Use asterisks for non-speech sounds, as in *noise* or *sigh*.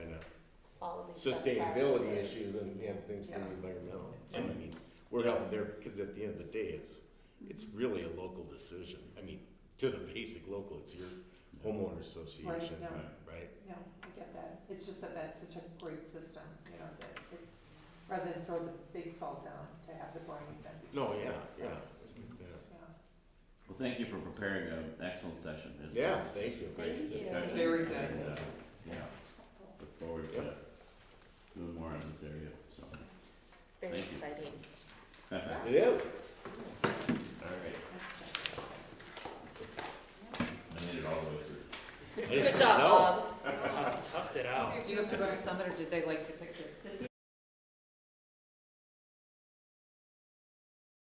these other sustainability practices. issues and, and things from Yeah. the environmental. So I mean, we're helping there, because at the end of the day, it's, it's really a local decision. I mean, to the basic local, it's your homeowner association, yeah. right? No, I get that. It's just that that's such a great system, you know, that, it- rather than throw the big salt down to have the boring done. No, yeah, So, yeah. yeah. Well, thank you for preparing an excellent session. This is- Yeah, thank you. Great. Thank you. discussion. Very good. And, uh, Yeah, look forward to doing more in this area, so. *laughs* Very Thank you. exciting. All right. It is. I made it all the way through. Good job, Bob. Tough- Toughed it out. Do you have to go to Summit, or did they like your picture?